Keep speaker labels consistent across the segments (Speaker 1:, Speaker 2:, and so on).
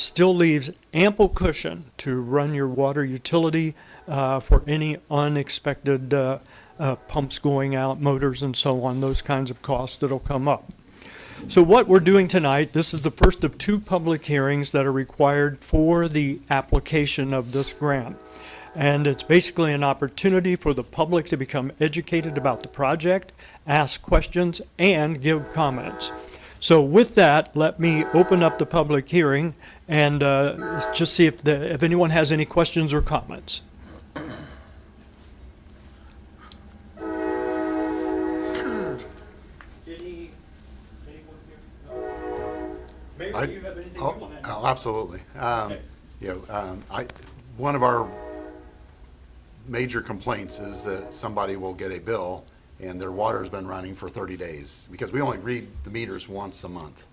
Speaker 1: still leaves ample cushion to run your water utility uh, for any unexpected uh, uh, pumps going out, motors, and so on, those kinds of costs that'll come up. So what we're doing tonight, this is the first of two public hearings that are required for the application of this grant. And it's basically an opportunity for the public to become educated about the project, ask questions, and give comments. So with that, let me open up the public hearing and uh, let's just see if, the- if anyone has any questions or comments. Any, anyone here?
Speaker 2: I-
Speaker 1: Maybe you have anything you
Speaker 2: Oh,
Speaker 1: want to
Speaker 2: oh, absolutely. Um,
Speaker 1: Okay.
Speaker 2: You know, um, I, one of our major complaints is that somebody will get a bill and their water's been running for 30 days, because we only read the meters once a month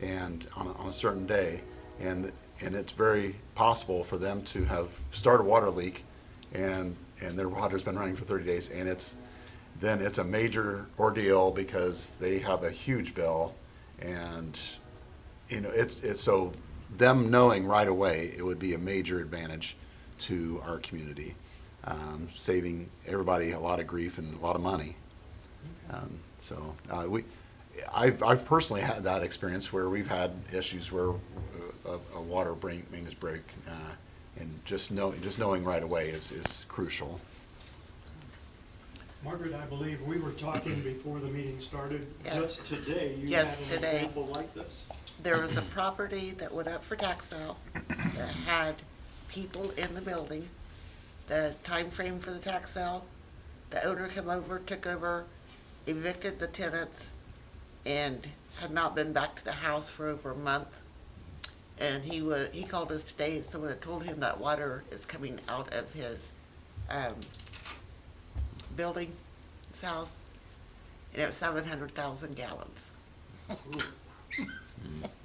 Speaker 2: and on, a- on a certain day. And, and it's very possible for them to have started a water leak and, and their water's been running for 30 days. And it's, then it's a major ordeal because they have a huge bill and you know, it's, it's so them knowing right away, it would be a major advantage to our community, um, saving everybody a lot of grief and a lot of money. Um, so, uh, we, I've, I've personally had that experience where we've had issues where uh, a, a water brain, maintenance break, uh, and just know, just knowing right away is, is crucial.
Speaker 1: Margaret, I believe we were talking before the meeting started.
Speaker 3: Yes.
Speaker 1: Just today, you had
Speaker 3: Yes,
Speaker 1: an
Speaker 3: today.
Speaker 1: example like this.
Speaker 3: There was a property that went up for tax sale that had people in the building. The time frame for the tax sale, the owner came over, took over, evicted the tenants, and had not been back to the house for over a month. And he was, he called us today, and someone had told him that water is coming out of his, um, building, his house, and it was seven hundred thousand gallons,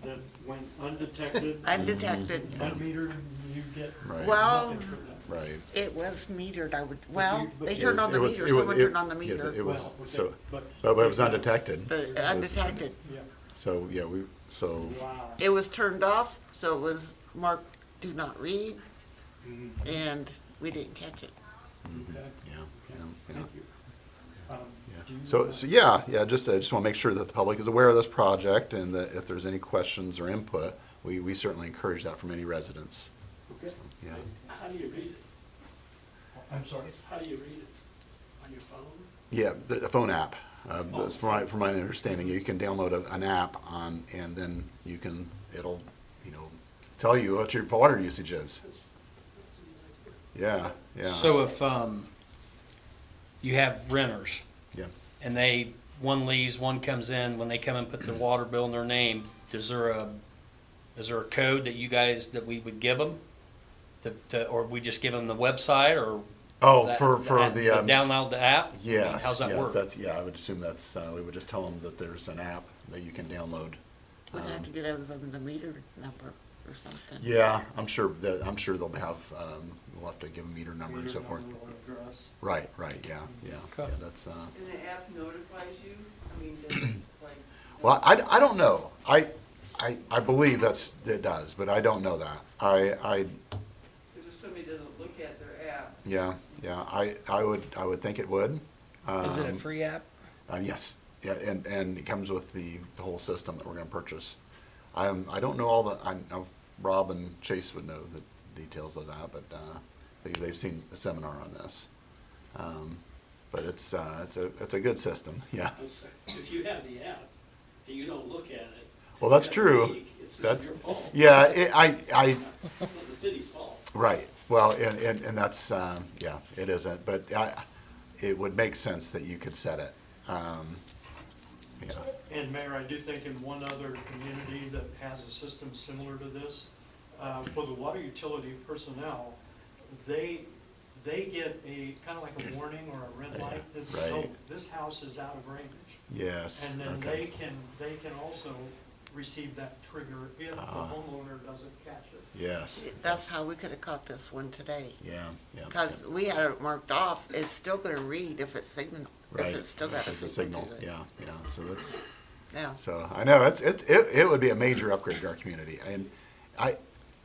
Speaker 1: That went undetected,
Speaker 3: undetected.
Speaker 1: unmetered, you get
Speaker 2: Right.
Speaker 3: Well,
Speaker 1: nothing for that.
Speaker 2: Right.
Speaker 3: It was metered, I would, well,
Speaker 1: but
Speaker 3: they
Speaker 1: you-
Speaker 3: turned on the
Speaker 2: It was-
Speaker 3: meter,
Speaker 2: it was-
Speaker 3: someone
Speaker 2: it-
Speaker 3: turned on the
Speaker 2: yeah,
Speaker 3: meter,
Speaker 2: It was,
Speaker 1: Well, okay,
Speaker 2: so, Oh.
Speaker 1: but-
Speaker 2: but it was undetected.
Speaker 3: but undetected.
Speaker 1: Yeah,
Speaker 2: So, yeah, we, so.
Speaker 1: wow.
Speaker 3: It was turned off, so it was marked do not read,
Speaker 1: Mhm,
Speaker 2: Mm-hmm.
Speaker 3: and we didn't catch it.
Speaker 1: Okay,
Speaker 2: Yeah,
Speaker 1: okay,
Speaker 2: yeah, yeah.
Speaker 1: thank you. Um, do you,
Speaker 2: So,
Speaker 1: uh,
Speaker 2: so yeah, yeah, just, I just want to make sure that the public is aware of this project and that if there's any questions or input, we, we certainly encourage that from any residents.
Speaker 1: okay.
Speaker 2: Yeah.
Speaker 1: How do you read it? I'm sorry? How do you read it? On your phone?
Speaker 2: Yeah, the, the phone app, uh, that's from my, from my understanding, you can download a- an app on, and then you can, it'll, you know, tell you what your water usage is. Yeah, yeah.
Speaker 4: So if um, you have renters
Speaker 2: Yeah,
Speaker 4: and they, one leaves, one comes in, when they come and put their water bill in their name, is there a, is there a code that you guys, that we would give them? To- to- Or we just give them the website or?
Speaker 2: oh,
Speaker 4: that-
Speaker 2: for, for
Speaker 4: app-
Speaker 2: the, um,
Speaker 4: Download the app?
Speaker 2: yes.
Speaker 4: How's that
Speaker 2: yeah,
Speaker 4: work?
Speaker 2: That's, yeah, I would assume that's, uh, we would just tell them that there's an app that you can download.
Speaker 3: We'd
Speaker 2: Um,
Speaker 3: have to get them from the meter number or something.
Speaker 2: Yeah, I'm sure that, I'm sure they'll have, um, we'll have to give a meter number and
Speaker 1: Reader
Speaker 2: so forth.
Speaker 1: number or address?
Speaker 2: Right, right, yeah, yeah, yeah,
Speaker 4: Okay.
Speaker 2: that's, uh,
Speaker 5: And the app notifies you? I mean, does it, like?
Speaker 2: well, I, I don't know. I, I, I believe that's, it does, but I don't know that. I, I,
Speaker 5: Because if somebody doesn't look at their app,
Speaker 2: yeah, yeah, I, I would, I would think it would.
Speaker 4: Is it a
Speaker 2: Um,
Speaker 4: free app?
Speaker 2: Uh, yes, yeah, and, and it comes with the, the whole system that we're gonna purchase. I'm, I don't know all the, I know Rob and Chase would know the details of that, but, uh, they, they've seen a seminar on this. Um, but it's, uh, it's a, it's a good system, yeah.
Speaker 6: If you have the app and you don't look at it.
Speaker 2: Well, that's
Speaker 6: that
Speaker 2: true.
Speaker 6: week, It's not
Speaker 2: That's-
Speaker 6: your fault.
Speaker 2: Yeah, it, I, I,
Speaker 6: It's not the city's fault.
Speaker 2: right, well, and, and, and that's, um, yeah, it isn't, but I, it would make sense that you could set it. Um, yeah,
Speaker 1: And Mayor, I do think in one other community that has a system similar to this, uh, for the water utility personnel, they, they get a, kind of like a warning or a red light that says, oh,
Speaker 2: right.
Speaker 1: this house is out of range.
Speaker 2: yes,
Speaker 1: And then they
Speaker 2: okay,
Speaker 1: can, they can also receive that trigger if the
Speaker 2: Ah.
Speaker 1: homeowner doesn't catch it.
Speaker 2: yes,
Speaker 3: That's how we could have caught this one today,
Speaker 2: yeah, yeah.
Speaker 3: because we had it marked off, it's still gonna read if it's signal,
Speaker 2: Right.
Speaker 3: if it's still got a
Speaker 2: It's
Speaker 3: signal to it.
Speaker 2: Yeah, yeah, so that's,
Speaker 3: Yeah.
Speaker 2: so, I know, it's, it, it, it would be a major upgrade to our community, and I,